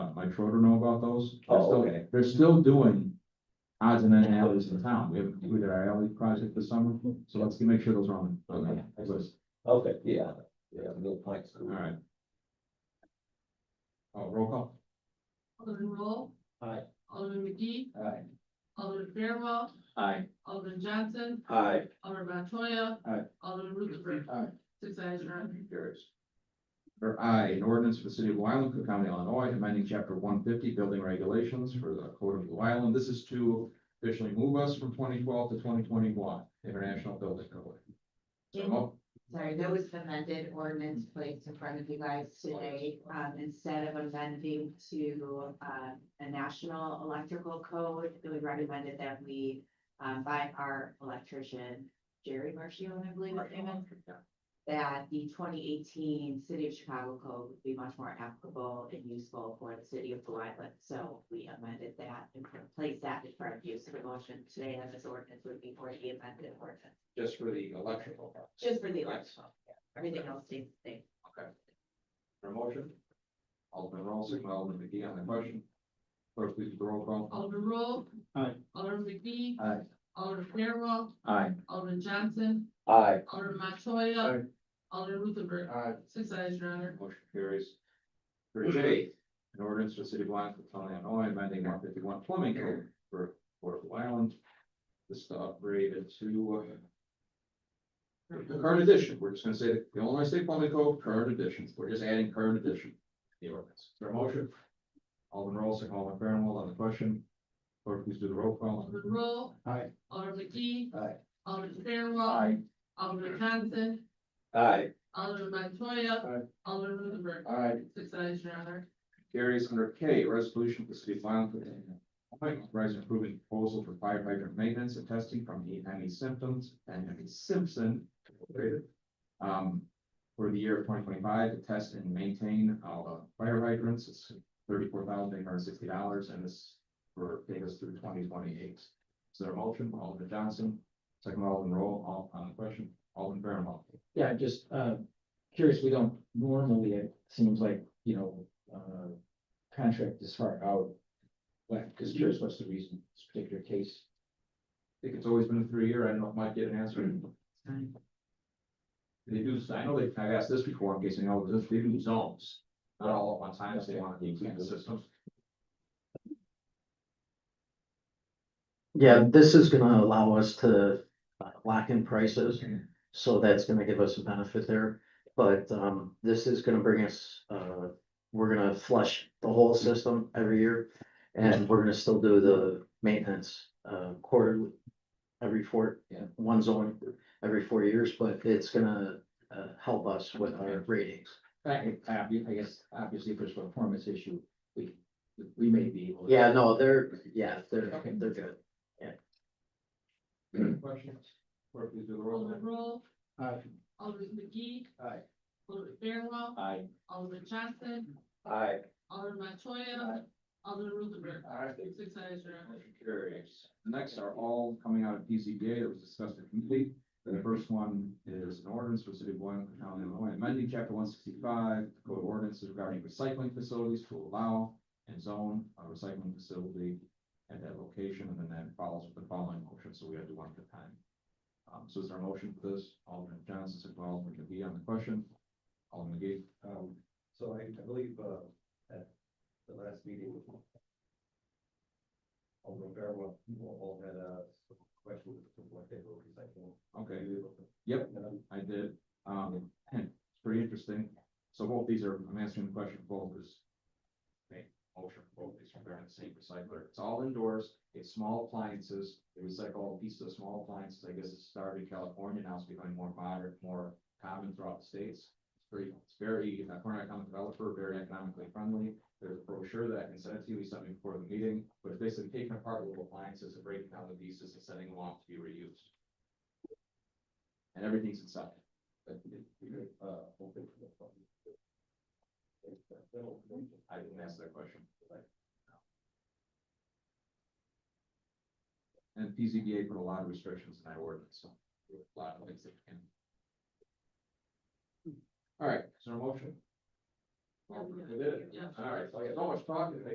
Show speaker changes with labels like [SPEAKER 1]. [SPEAKER 1] uh, my Schroeder know about those. They're
[SPEAKER 2] Oh,
[SPEAKER 1] still-
[SPEAKER 2] okay.
[SPEAKER 1] They're still doing odds and then alleys in town. We have, we did our alley project this summer, so let's make sure those are on, on that list.
[SPEAKER 2] Okay, yeah, yeah, Mill Pike
[SPEAKER 1] All
[SPEAKER 2] School.
[SPEAKER 1] right. Oh, roll call.
[SPEAKER 3] Alderman Roll.
[SPEAKER 2] Aye.
[SPEAKER 3] Alderman McGee,
[SPEAKER 2] Aye.
[SPEAKER 3] Alderman Fairwell,
[SPEAKER 2] Aye.
[SPEAKER 3] Alderman Johnson,
[SPEAKER 2] Aye.
[SPEAKER 3] Alderman Montoya.
[SPEAKER 1] Aye.
[SPEAKER 3] Alderman Rutherford.
[SPEAKER 1] Aye.
[SPEAKER 3] Six ayes, your honor.
[SPEAKER 1] Carries. Or I, an ordinance for the city of Blue Island, Cook County, Illinois, amending chapter one fifty building regulations for the code of Blue Island. This is to officially move us from twenty twelve to twenty twenty-one, international building code. So, oh. mo-
[SPEAKER 4] Sorry, there was an amended ordinance placed in front of you guys today, um, instead of amending to, uh, a national electrical code, it was recommended that we, um, by our electrician, Jerry Marshall, I believe, his name is, that the twenty eighteen City of Chicago code would be much more applicable and useful for the city of Blue Island, so we amended that and placed that in front of you, so the motion today on this ordinance would be for the amended ordinance.
[SPEAKER 1] just for the electrical. part.
[SPEAKER 4] Just for the
[SPEAKER 1] election.
[SPEAKER 4] election, everything else stays the same.
[SPEAKER 1] For a motion? Alderman Rossing, Alderman McGee on the question. Clerk, please do the roll call.
[SPEAKER 3] Alderman Roll.
[SPEAKER 1] Aye.
[SPEAKER 3] Alderman McGee.
[SPEAKER 1] Aye.
[SPEAKER 3] Alderman Fairwell,
[SPEAKER 1] Aye.
[SPEAKER 3] Alderman Johnson,
[SPEAKER 2] Aye.
[SPEAKER 3] Alderman Montoya. Alderman Rutherford.
[SPEAKER 1] Aye.
[SPEAKER 3] Six ayes, your honor.
[SPEAKER 1] Motion carries. For J, an ordinance for the city of Blue Island, County, Illinois, amending one fifty-one plumbing code for Port of Blue Island. This is to upgrade it to uh, the current edition. We're just gonna say the Illinois State Plumbing Code, current edition. We're just adding current edition. to The ordinance. Is there a motion? Alderman Rollins, Alderman Fairwell on the question. Clerk, please do the roll call.
[SPEAKER 3] Alderman Roll.
[SPEAKER 1] Aye.
[SPEAKER 3] Alderman McGee.
[SPEAKER 1] Aye.
[SPEAKER 3] Alderman Fairwell. Alderman Johnson,
[SPEAKER 2] Aye.
[SPEAKER 3] Alderman Montoya. Alderman Rutherford.
[SPEAKER 1] Aye.
[SPEAKER 3] Six ayes, your honor.
[SPEAKER 1] Carries under K, resolution for the city of Violent. Rise improving proposal for fire hydrant maintenance and testing from the Emmy Symptoms and Emmy Simpson. Incorporated, Um, for the year of twenty twenty-five, to test and maintain all the fire hydrants, it's thirty-four thousand eight hundred sixty dollars, and this for, take us through twenty twenty-eight. Is there a motion, Alderman Johnson, second Alderman Roll, all on the question, Alderman Fairwell.
[SPEAKER 5] Yeah, just uh curious, we don't normally, it seems like, you know, uh contract this far out. But just curious, what's the reason this particular case?
[SPEAKER 1] I think it's always been a three-year, I don't know if Mike get an answer. They do, I know they, I've asked this before, in case you know, this, they do zones, not all at one time, if they want to include the systems.
[SPEAKER 6] Yeah, this is gonna allow us to uh, lock in prices, so that's gonna give us a benefit there. But um, this is gonna bring us, uh, we're gonna flush the whole system every year. And we're gonna still do the maintenance uh quarterly, every four,
[SPEAKER 5] Yeah.
[SPEAKER 6] one zone, every four years, but it's gonna uh help us with our ratings.
[SPEAKER 5] I I I guess obviously if there's a performance issue, we we may be able. to-
[SPEAKER 6] Yeah, no, they're, yeah, they're,
[SPEAKER 5] Okay.
[SPEAKER 6] they're good.
[SPEAKER 1] Any questions? Or please do the roll.
[SPEAKER 3] Alderman Roll. Alderman McGee.
[SPEAKER 5] Aye.
[SPEAKER 3] Alderman Fairwell.
[SPEAKER 5] Aye.
[SPEAKER 3] Alderman Johnson,
[SPEAKER 2] Aye.
[SPEAKER 3] Alderman Montoya. Alderman Rutherford. Six ayes, your honor.
[SPEAKER 1] Motion carries. The next are all coming out of PCBA that was discussed in committee. The first one is an ordinance for the city of Blue Island, County of Illinois, amending chapter one sixty-five, code of ordinances regarding recycling facilities to allow and zone a recycling facility at that location, and then that follows with the following motion, so we have to one at a time. Um, so is there a motion for this? Alderman Johnson, second by Alderman McGee on the question. Alderman McGee.
[SPEAKER 2] Um, so I, I believe, uh, at the last meeting. Alderman Fairwell, all had uh, a question of what they were recycling.
[SPEAKER 1] Okay, Yep. I did, um, it's pretty interesting. So both these are, I'm answering the question, both is. Make motion, for both these are they're in the same recycler, it's all indoors, it's small appliances, they recycle all pieces of small appliances, I guess it started in California, now it's becoming more modern, more common throughout the states. It's pretty, it's very, uh, for an economic developer, very economically friendly, there's a brochure that I can send it to you, we sent it before the meeting, but it's basically taking apart little appliances and breaking down the pieces and sending them off to be reused. And everything's inside. I didn't ask that question. And PZBA put a lot of restrictions in that ordinance, so there were a lot of things that can. All right, is there a motion?
[SPEAKER 3] Yeah, we got it.
[SPEAKER 1] We did it.
[SPEAKER 3] Yeah.
[SPEAKER 1] All right, so I got so much talking.